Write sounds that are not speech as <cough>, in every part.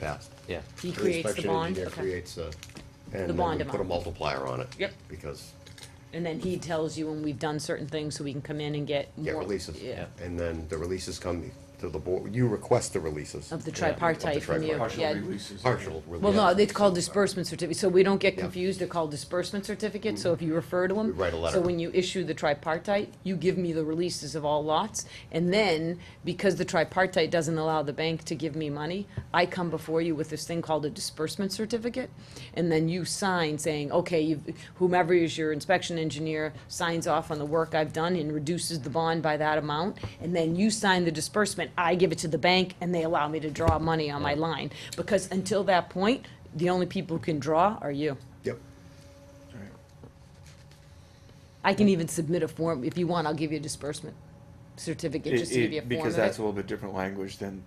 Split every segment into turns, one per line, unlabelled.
passed.
Yeah.
He creates the
inspection
bond,
engineer
okay.
Creates a, and
The
then
bond
we put a
amount.
multiplier on it.
Yep.
Because,
And then he tells you when we've done certain things, so we can come in and get
yeah,
more-
releases.
Yeah,
And then the releases come to the board, you request the releases.
of the tripartite from you,
tripartite.
yeah.
Partial releases.
Partial release.
Well, no, it's called disbursement certificate, so we don't get
Yeah.
confused, they're called disbursement certificates, so if you refer to them.
We write a letter.
So when you issue the tripartite, you give me the releases of all lots, and then, because the tripartite doesn't allow the bank to give me money, I come before you with this thing called a disbursement certificate, and then you sign saying, okay, you've- whomever is your inspection engineer signs off on the work I've done and reduces the bond by that amount, and then you sign the disbursement, I give it to the bank, and they allow me to draw money on my line, because until that point, the only people who can draw are you.
Yep.
I can even submit a form, if you want, I'll give you a disbursement certificate, just to give you a
It- it-
form of
Because
it.
that's a little bit different language than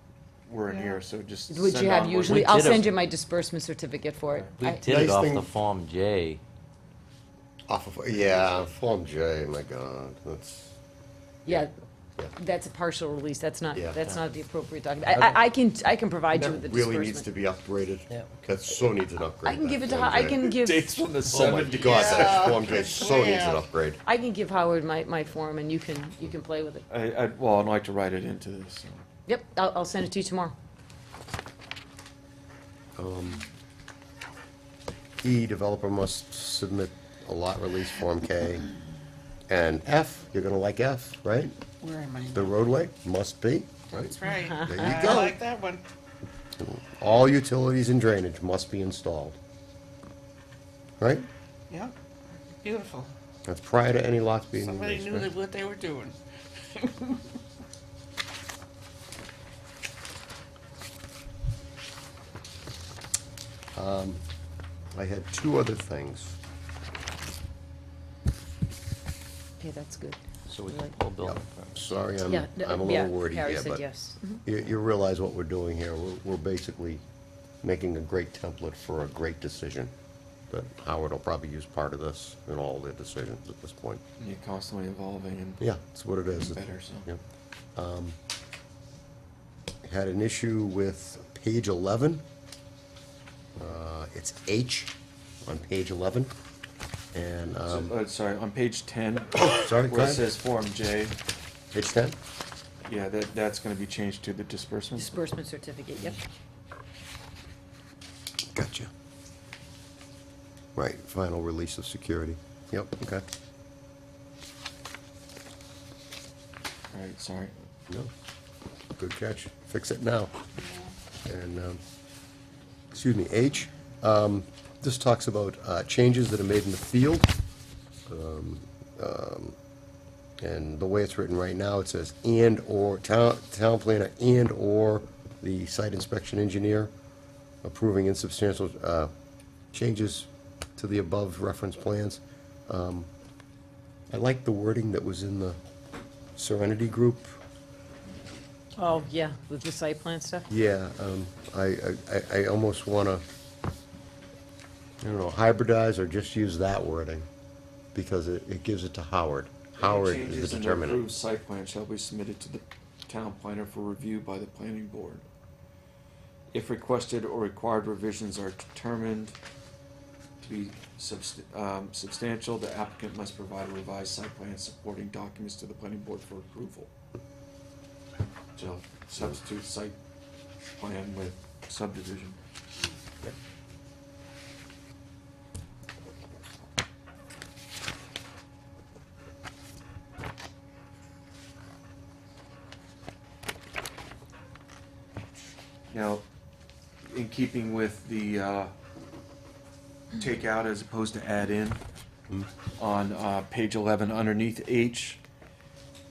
we're in here, so just.
Which
send
you have
on what-
usually,
We
I'll
did a-
send you my disbursement certificate for it.
We
I-
did it
Nice
off
thing-
the Form J.
Off of, yeah, Form J, my God, that's,
Yeah,
yeah.
that's a partial release, that's not,
Yeah.
that's not the appropriate document. I- I, I can, I can provide you with the
That really needs to
disbursement.
be upgraded.
Yeah.
That so needs an upgrade.
I can
that
give it to,
Form
Ho- I
J. <laughs>
can give,
Dates
Oh
from the
my
seventies.
God, that Form J so needs an upgrade.
I can give Howard my, my form and you can, you can play with it.
I, I, well, I'd like to write it into this. so.
Yep, I'll, I'll send it to you tomorrow.
E, developer must submit a lot release Form K. And F, you're gonna like F, right?
Where am I?
The roadway must be, right?
That's right.
There you
I
go.
like that one.
All utilities and drainage must be installed. Right?
Yeah, beautiful.
That's prior to any lots being
Somebody
released,
knew
right?
that what they were doing.
I had two other things.
Okay, that's good.
So we can
Like-
pull building permits.
Sorry, I'm,
Yeah,
I'm a
yeah,
little wordy
Harry
here,
said
but
yes. Mm-hmm.
you, you realize what we're doing here. We're, we're basically making a great template for a great decision. But Howard will probably use part of this in all their decisions at this point.
You're constantly evolving and.
Yeah, that's what it is.
Better, so.
Yep. Um, Had an issue with page eleven. Uh, It's H on page eleven, and,
So,
um,
uh, sorry, on
<coughs>
page ten,
sorry, go
where it
ahead.
says Form J,
Page ten?
yeah, that, that's gonna be changed to the disbursement.
Disbursement certificate, yep.
Gotcha. Right, final release of security. Yep, okay.
Alright, sorry.
No, good catch. Fix it now. And, um, excuse me, H, um, this talks about, uh, changes that are made in the field. Um, um, And the way it's written right now, it says and/or, town, town planner and/or the site inspection engineer approving insubstantial, uh, changes to the above reference plans. Um, I like the wording that was in the Serenity Group
Oh, yeah, with the site plan stuff?
Yeah, um, I, I- I, I almost wanna, I don't know, hybridize or just use that wording, because it, it gives it to Howard. Howard
Any
is
changes
the
in the approved
determinant.
site plan shall be submitted to the town planner for review by the planning board. If requested or required revisions are determined to be subst- um, substantial, the applicant must provide a revised site plan and supporting documents to the planning board for approval. So substitute site plan with subdivision. Now, in keeping with the uh, take out as opposed to add in, on uh, page 11 underneath H,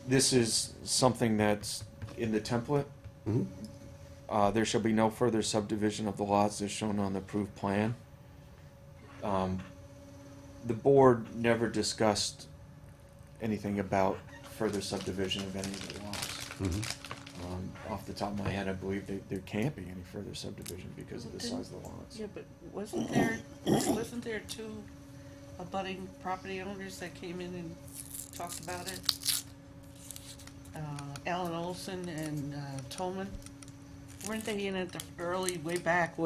this is something that's in the template. Uh, There shall be no further subdivision of the lots as shown on the approved plan. Um, The board never discussed anything about further subdivision of any of the lots. Um, Off the top of my head, I believe that there can't be any further subdivision because of the size of the lots.
Yeah, but wasn't there, wasn't there two abutting property owners that came in and talked about it? Uh, Alan Olson and, uh, Tolman? weren't they in at the early, way back